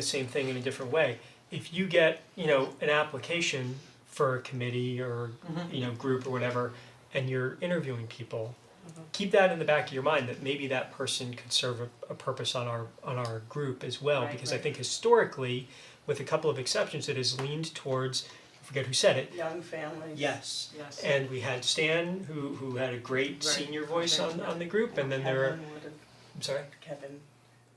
the same thing in a different way. If you get, you know, an application for a committee or, you know, group or whatever, and you're interviewing people, Mm-hmm. keep that in the back of your mind that maybe that person could serve a, a purpose on our, on our group as well. Right, Because I right. think historically, with a couple of exceptions, it has leaned towards, I forget who said it, young families. yes. Yes. And we had Stan, who, who had a great Right. senior voice on, on the group, and then there are, Kevin would have, I'm sorry? Kevin,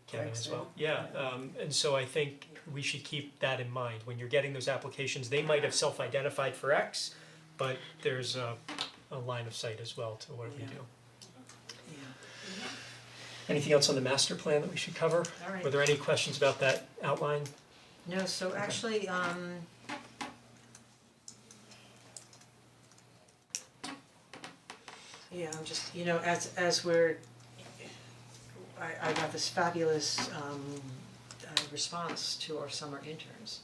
Kevin as well, Excellent. yeah, um, and so I think we should keep that in mind, when you're getting those applications, they might have self-identified for X, but there's a, a line of sight as well to what we Yeah. do. Anything else on the master plan that we should cover? All right. Were there any questions about that outline? No, so actually, um. Yeah, I'm just, you know, as as we're, I I got this fabulous um uh response to our summer interns.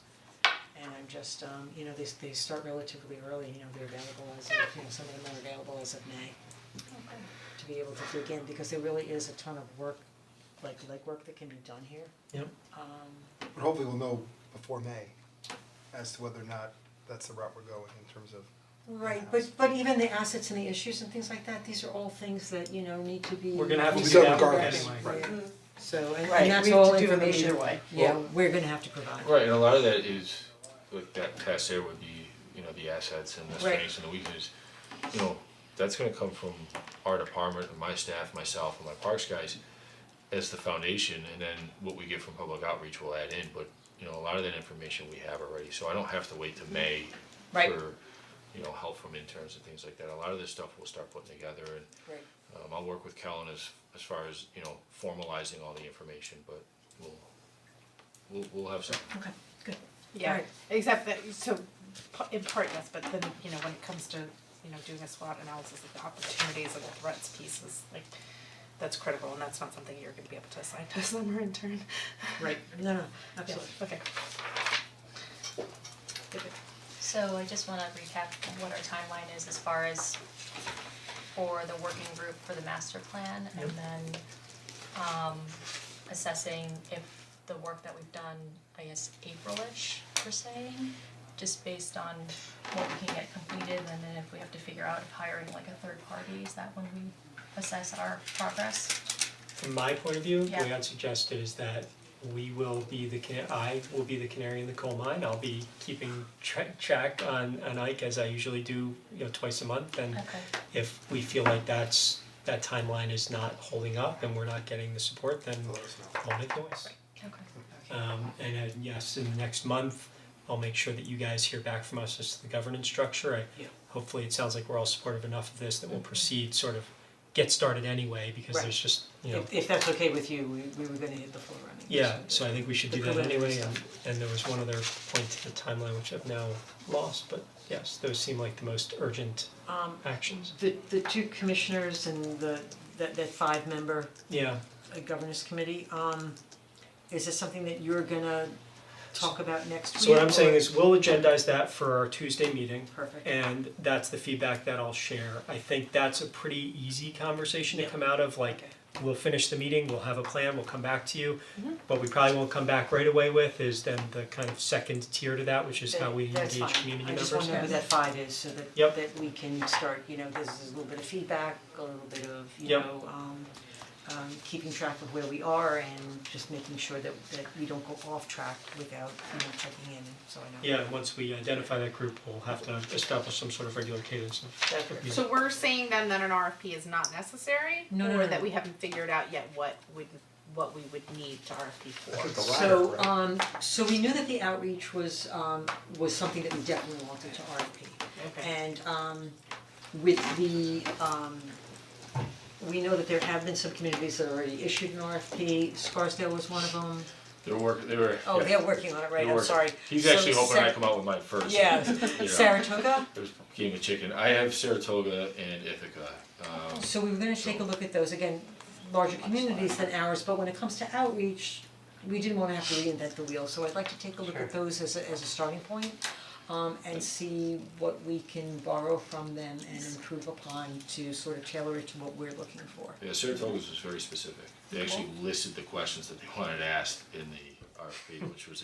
And I'm just, um, you know, they they start relatively early, you know, they're available as of, you know, some of them are available as of May. To be able to dig in, because there really is a ton of work, like legwork that can be done here. Yep. Um, But hopefully we'll know before May as to whether or not that's the route we're going in terms of, Right, but but even the assets and the issues and things like that, these are all things that, you know, need to be. Mm-hmm. We're gonna have to We do said that regardless, anyway. right. So and Right, and that's we have all to do them information, either way. yeah, we're gonna have to provide. Right, and a lot of that is, like that test there with the, you know, the assets and the Right. strengths and the weaknesses. You know, that's gonna come from our department and my staff, myself and my parks guys as the foundation and then what we get from public outreach will add in, but you know, a lot of that information we have already, so I don't have to wait to May Mm-hmm. Right. for, you know, help from interns and things like that. A lot of this stuff we'll start putting together and Right. um I'll work with Kellen as as far as, you know, formalizing all the information, but we'll we'll we'll have something. Okay, good. Yeah, Right. except that, so, p- in part, yes, but then, you know, when it comes to, you know, doing a SWOT analysis of the opportunities and the threats pieces, like, that's critical, and that's not something you're gonna be able to assign to a summer intern. Right. No, no, Yeah, absolutely. okay. So I just wanna recap what our timeline is as far as for the working group for the master plan and then um assessing if the work that we've done, I guess April-ish per se, just based on what we can get completed and then if we have to figure out if hiring like a third party, is that when we assess our progress? From my point of view, the way Yeah. I'd suggest it is that we will be the, cana- I will be the canary in the coal mine, I'll be keeping tra- track on, on Ike as I usually do, you know, twice a month and Okay. if we feel like that's, that timeline is not holding up and we're not getting the support, then to let us know. I'll make noise. Okay. Um, and uh, yes, in the next month, I'll make sure that you guys hear back from us as to the governance structure. I, Yeah. Mm-hmm. hopefully, it sounds like we're all supportive enough of this that we'll proceed, sort of get started anyway, because Right. there's just, you know. If if that's okay with you, we we were gonna hit the floor running. Yeah, so I think we should do The that preliminary anyway, and, and there was one other point to the timeline which I've now lost, but yes, those seem like the most urgent Um, actions. the the two commissioners and the that that five member Yeah, uh, governance committee, um, is this something that you're gonna talk about next week? so what I'm saying or- is we'll agendize that for our Tuesday meeting. Perfect. And that's the feedback that I'll share. I think that's a pretty easy conversation to Yeah. come out of, like, Okay. we'll finish the meeting, we'll have a plan, we'll come back to you. Mm-hmm. What we probably won't come back right away with is then the kind of second tier to that, which is how we That's engage fine. community members. I just wanna know who that five is so that Yep. that we can start, you know, there's there's a little bit of feedback, a little bit of, you Yep. know, um um keeping track of where we are and just making sure that that we don't go off track without, you know, checking in, so I know. Yeah, and once we identify that group, we'll have to establish some sort of regular cadence of That's right. music. So we're saying then that an RFP is not necessary, No, no, or no, that no. we haven't figured out yet what would, what we would need to RFP for? I think the latter, So right? um so we knew that the outreach was um was something that we definitely wanted to RFP. Okay. And um with the um we know that there have been some communities that already issued an RFP, Scarsdale was one of them. They're working, they were. Oh, yeah, they're working on it, right, I'm they're working. sorry. He's So actually hoping I Sar- come out with mine first. Yeah, You know, Saratoga, There's game of chicken. I have Saratoga and Ithaca. Um, so we were gonna take a look at those, again, larger communities than ours, but when it comes to outreach, we didn't wanna have to reinvent the wheel, so I'd like to take a look at those as a as a starting point. Um and see what we can borrow from them and improve upon to sort of tailor it to what we're looking for. yeah, Saratoga's was very specific. They actually listed the questions that they wanted asked in the RFP, which was